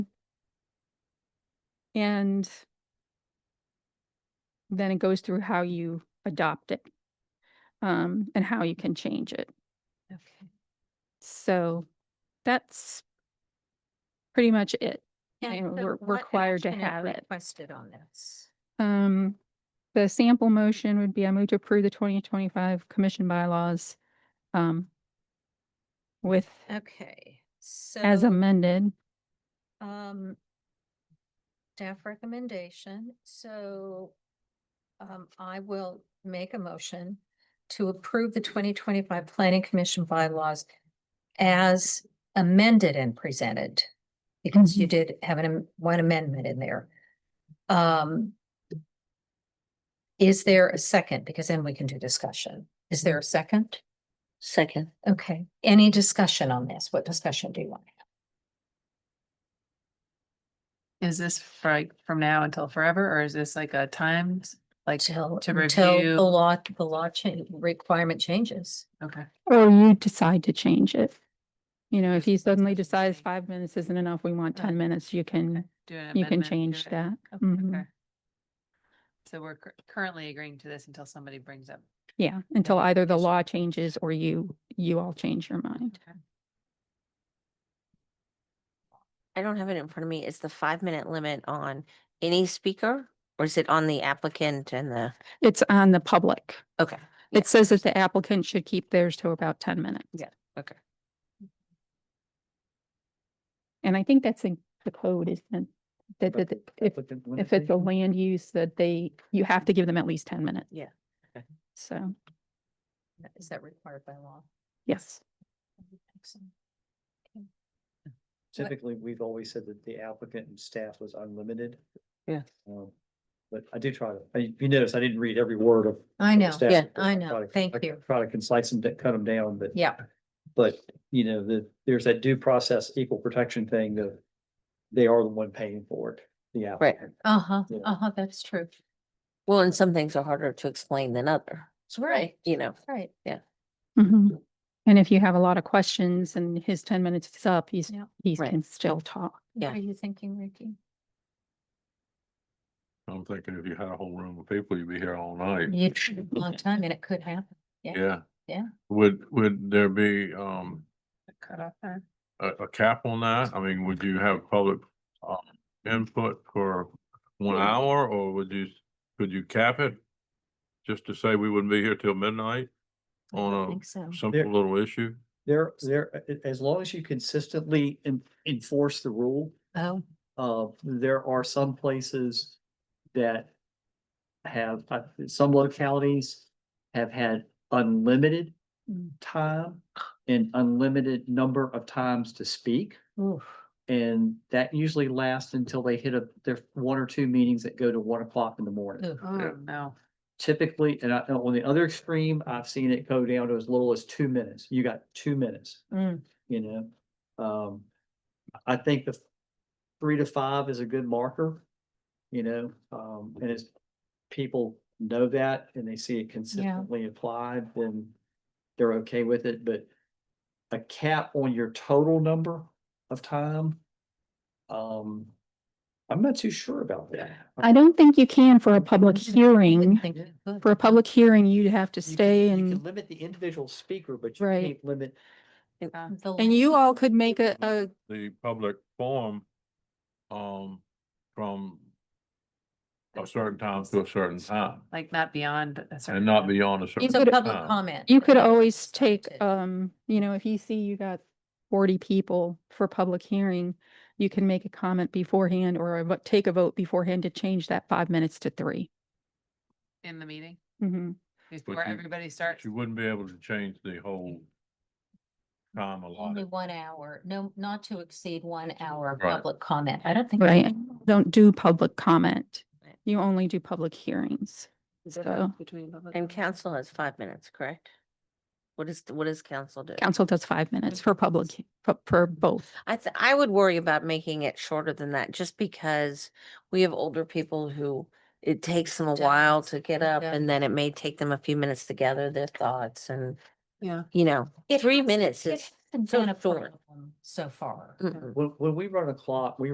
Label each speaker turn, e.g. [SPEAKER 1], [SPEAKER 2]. [SPEAKER 1] And then it goes through how you adopt it um, and how you can change it.
[SPEAKER 2] Okay.
[SPEAKER 1] So that's pretty much it.
[SPEAKER 2] And
[SPEAKER 1] And
[SPEAKER 2] so
[SPEAKER 1] we're- we're
[SPEAKER 2] what
[SPEAKER 1] required to
[SPEAKER 2] action is
[SPEAKER 1] have it.
[SPEAKER 2] Requested on this.
[SPEAKER 1] Um, the sample motion would be I move to approve the twenty twenty-five commission bylaws um, with,
[SPEAKER 2] Okay,
[SPEAKER 1] as
[SPEAKER 2] so,
[SPEAKER 1] amended.
[SPEAKER 2] um, staff recommendation, so um, I will make a motion to approve the twenty twenty-five planning commission bylaws as amended and presented, because you did have an, am- one amendment in there. Um, is there a second? Because then we can do discussion. Is there a second?
[SPEAKER 3] Second.
[SPEAKER 2] Okay, any discussion on this? What discussion do you want?
[SPEAKER 4] Is this for like from now until forever, or is this like a times, like,
[SPEAKER 2] Till,
[SPEAKER 4] to
[SPEAKER 2] until
[SPEAKER 4] review-
[SPEAKER 2] the law, the law change, requirement changes.
[SPEAKER 4] okay,
[SPEAKER 1] Or you decide to change it. You know, if you suddenly decide five minutes isn't enough, we want
[SPEAKER 4] Uh,
[SPEAKER 1] ten minutes, you can,
[SPEAKER 4] do an amendment?
[SPEAKER 1] you can
[SPEAKER 4] to
[SPEAKER 1] change
[SPEAKER 4] it?
[SPEAKER 1] that.
[SPEAKER 2] Okay.
[SPEAKER 1] Mhm.
[SPEAKER 4] Okay. So we're cur- currently agreeing to this until somebody brings up.
[SPEAKER 1] Yeah, until
[SPEAKER 4] Yeah,
[SPEAKER 1] either the
[SPEAKER 4] yes.
[SPEAKER 1] law changes or you, you all change your mind.
[SPEAKER 4] Okay.
[SPEAKER 3] I don't have it in front of me. Is the five minute limit on any speaker or is it on the applicant and the,
[SPEAKER 1] It's on the public.
[SPEAKER 3] okay,
[SPEAKER 1] It says that the applicant should keep theirs to about ten minutes.
[SPEAKER 3] Yeah, okay.
[SPEAKER 1] And I think that's in the code, isn't it? That, that, that if, if it's a land use that they, you have to give them at least ten minutes.
[SPEAKER 3] Yeah, okay.
[SPEAKER 1] So,
[SPEAKER 2] Is that required by law?
[SPEAKER 1] yes.
[SPEAKER 2] Excellent. What-
[SPEAKER 5] Typically, we've always said that the applicant and staff was unlimited.
[SPEAKER 3] Yeah.
[SPEAKER 5] Um, But I did try to, I- you notice I didn't read every word of.
[SPEAKER 2] I know,
[SPEAKER 5] staff
[SPEAKER 3] Yeah.
[SPEAKER 5] report.
[SPEAKER 2] I
[SPEAKER 5] try
[SPEAKER 2] know.
[SPEAKER 5] to-
[SPEAKER 2] Thank
[SPEAKER 5] I
[SPEAKER 2] you.
[SPEAKER 5] Try to concise them, to cut them down, but.
[SPEAKER 2] Yeah,
[SPEAKER 5] But, you know, the, there's that due process, equal protection thing of they are the one paying for it, the
[SPEAKER 3] Right.
[SPEAKER 5] applicant.
[SPEAKER 2] uh-huh,
[SPEAKER 5] Yeah.
[SPEAKER 2] uh-huh, that's true.
[SPEAKER 3] Well, and some things are harder to explain than other,
[SPEAKER 2] That's right.
[SPEAKER 3] you know.
[SPEAKER 2] Right.
[SPEAKER 1] Mhm. And if you have a lot of questions and his ten minutes is up, he's,
[SPEAKER 2] Yeah.
[SPEAKER 1] he
[SPEAKER 3] Right.
[SPEAKER 1] can still talk.
[SPEAKER 2] What
[SPEAKER 3] Yeah.
[SPEAKER 2] are you thinking, Ricky?
[SPEAKER 6] I'm thinking if you had a whole room of people, you'd be here all night.
[SPEAKER 2] You, a long time and it could happen. Yeah.
[SPEAKER 6] Yeah.
[SPEAKER 2] Yeah.
[SPEAKER 6] Would, would there be, um,
[SPEAKER 4] Cut off time.
[SPEAKER 6] a, a cap on that? I mean, would you have public, um, input for one hour or would you, could you cap it? Just to say we wouldn't be here till midnight
[SPEAKER 2] I don't
[SPEAKER 6] on
[SPEAKER 2] think so.
[SPEAKER 6] a simple little issue?
[SPEAKER 5] There, there, a- as long as you consistently en- enforce the rule,
[SPEAKER 2] Oh,
[SPEAKER 5] Uh, there are some places that have, uh, some localities have had unlimited
[SPEAKER 2] Mm.
[SPEAKER 5] time and unlimited number of times to speak.
[SPEAKER 2] oof.
[SPEAKER 5] And that usually lasts until they hit a, their one or two meetings that go to one o'clock in the morning.
[SPEAKER 2] Ugh.
[SPEAKER 4] Oh, no.
[SPEAKER 5] Typically, and I, and on the other extreme, I've seen it go down to as little as two minutes. You got two minutes
[SPEAKER 2] Mm.
[SPEAKER 5] you know? Um, I I think the three to five is a good marker, you know, um, and as people know that and they see it consistently applied, then they're okay with it, but a cap on your total number of time, um, I'm not too sure about that.
[SPEAKER 1] I don't think you can for a public
[SPEAKER 2] Wouldn't
[SPEAKER 1] hearing.
[SPEAKER 2] think it could.
[SPEAKER 1] For a public hearing, you'd have to
[SPEAKER 5] You can-
[SPEAKER 1] stay
[SPEAKER 5] you can
[SPEAKER 1] and,
[SPEAKER 5] Limit the individual speaker, but you
[SPEAKER 1] Right.
[SPEAKER 5] can't limit
[SPEAKER 2] Um, The-
[SPEAKER 1] and you all could make a, a,
[SPEAKER 6] The public forum, um, from a certain time to a certain time
[SPEAKER 4] Like not beyond a certain.
[SPEAKER 6] Oh, and not
[SPEAKER 4] time.
[SPEAKER 6] beyond a certain.
[SPEAKER 2] So
[SPEAKER 1] could-
[SPEAKER 2] public
[SPEAKER 6] time.
[SPEAKER 2] comment.
[SPEAKER 1] you could always take,
[SPEAKER 2] Restricted.
[SPEAKER 1] um, you know, if you see you got forty people for public hearing, you can make a comment beforehand or a vo- take a vote beforehand to change that five minutes to 3
[SPEAKER 4] In the meeting,
[SPEAKER 1] Mhm.
[SPEAKER 4] before
[SPEAKER 6] you-
[SPEAKER 4] everybody
[SPEAKER 6] But
[SPEAKER 4] starts.
[SPEAKER 6] You wouldn't be able to change the whole time
[SPEAKER 2] Only
[SPEAKER 6] allotted.
[SPEAKER 2] one hour, no, not to exceed one hour of
[SPEAKER 6] Right.
[SPEAKER 2] public comment. I don't think.
[SPEAKER 1] Right. Don't do public comment.
[SPEAKER 3] Right.
[SPEAKER 1] You only do public hearings. So
[SPEAKER 3] And council has five minutes, correct? What is, what does council do?
[SPEAKER 1] council does five minutes for public, he- for, for both.
[SPEAKER 3] I th- I would worry about making it shorter than that, just because we have older people who it takes them a while to get up
[SPEAKER 2] Yeah.
[SPEAKER 3] and then it may take them a few minutes to gather their thoughts and,
[SPEAKER 4] Yeah.
[SPEAKER 3] you know,
[SPEAKER 2] It
[SPEAKER 3] three
[SPEAKER 2] hasn't-
[SPEAKER 3] minutes
[SPEAKER 2] it
[SPEAKER 3] is
[SPEAKER 2] hasn't
[SPEAKER 3] so
[SPEAKER 2] been a
[SPEAKER 3] short.
[SPEAKER 2] problem So far.
[SPEAKER 3] mm-mm.
[SPEAKER 5] When, when we run a clock, we